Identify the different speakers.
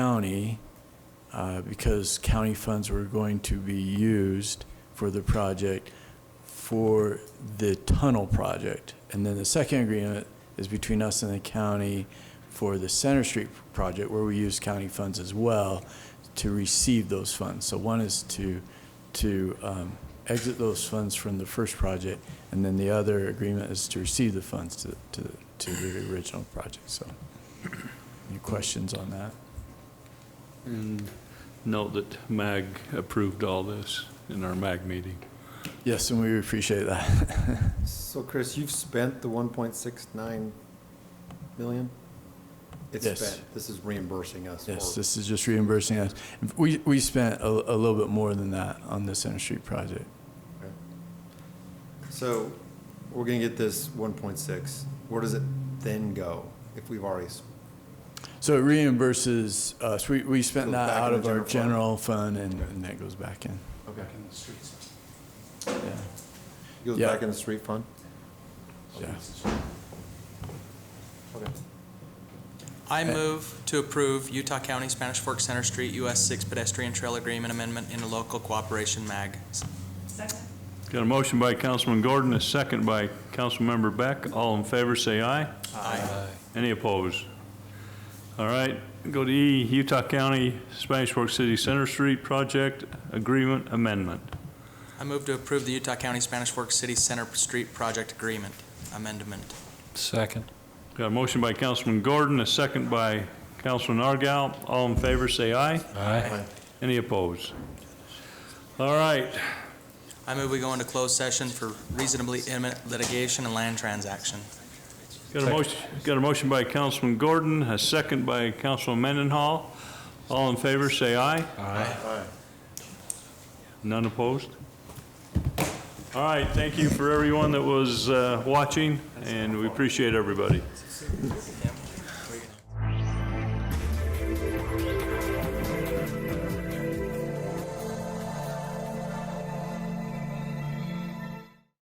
Speaker 1: county uh, because county funds were going to be used for the project for the tunnel project. And then the second agreement is between us and the county for the Center Street project where we use county funds as well to receive those funds. So one is to, to um, exit those funds from the first project, and then the other agreement is to receive the funds to, to, to the original project, so. Any questions on that?
Speaker 2: And note that MAG approved all this in our MAG meeting.
Speaker 1: Yes, and we appreciate that.
Speaker 3: So Chris, you've spent the one point six nine million? It's
Speaker 1: Yes.
Speaker 3: spent. This is reimbursing us.
Speaker 1: Yes,
Speaker 3: for-
Speaker 1: this is just reimbursing us. We, we spent a, a little bit more than that on the Center Street project.
Speaker 3: Okay. So we're gonna get this one point six. Where does it then go if we've already, s-
Speaker 1: So it reimburses us, we, we spent
Speaker 3: Goes
Speaker 1: that
Speaker 3: back
Speaker 1: out
Speaker 3: in
Speaker 1: of
Speaker 3: the
Speaker 1: our general
Speaker 3: general
Speaker 1: fund, and, and that goes back in,
Speaker 3: okay,
Speaker 1: yeah,
Speaker 3: It goes
Speaker 1: Yeah.
Speaker 3: back in the street fund?
Speaker 1: yeah.
Speaker 3: Okay.
Speaker 4: I move to approve Utah County Spanish Fork Center Street US 6 pedestrian trail agreement amendment in a local cooperation MAG.
Speaker 2: Got a motion by Councilman Gordon, a second by Councilmember Beck. All in favor, say aye.
Speaker 4: Aye.
Speaker 2: Any opposed? All right, go to E, Utah County Spanish Fork City Center Street Project Agreement Amendment.
Speaker 4: I move to approve the Utah County Spanish Fork City Center Street Project Agreement Amendment.
Speaker 5: Second.
Speaker 2: Got a motion by Councilman Gordon, a second by Councilman Argal. All in favor, say aye.
Speaker 5: Aye.
Speaker 2: Any opposed? All right,
Speaker 4: I move we go into closed session for reasonably imminent litigation and land transaction.
Speaker 2: Got a motion, got a motion by Councilman Gordon, a second by Councilman Mendenhall. All in favor, say aye.
Speaker 5: Aye.
Speaker 2: None opposed? All right, thank you for everyone that was uh, watching, and we appreciate everybody.